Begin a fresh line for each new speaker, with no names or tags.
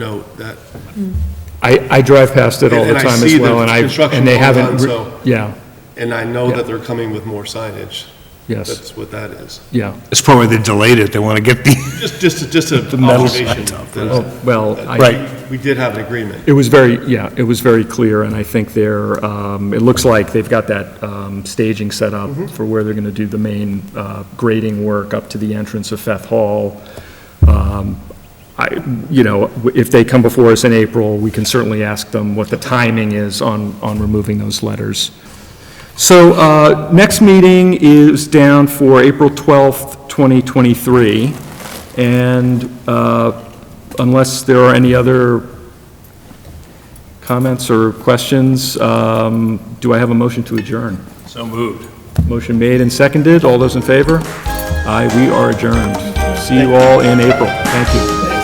note that,
I, I drive past it all the
And I
time
see
as
the
well, and I,
construction
and they
going on,
haven't, re-
so-
yeah,
and I know
Yeah.
that they're coming with more signage.
yes,
That's what that is.
yeah.
It's probably they delayed it, they want to get the,
Just, just, just an
metal
observation.
signs up.
that-
Oh, Well,
that
I,
Right.
We did have an agreement.
it was very, yeah, it was very clear, and I think they're, um, it looks like they've got that, um, staging set up for where they're gonna do the main, uh, grading work up to the entrance of Feth Hall. Um, I, you know, if they come before us in April, we can certainly ask them what the timing is on, on removing those letters. So, uh, next meeting is down for April 12th, 2023, and uh, unless there are any other comments or questions, um, do I have a motion to adjourn?
so moved.
Motion made and seconded, all those in favor? Aye, we are adjourned. See you all in April, thank you.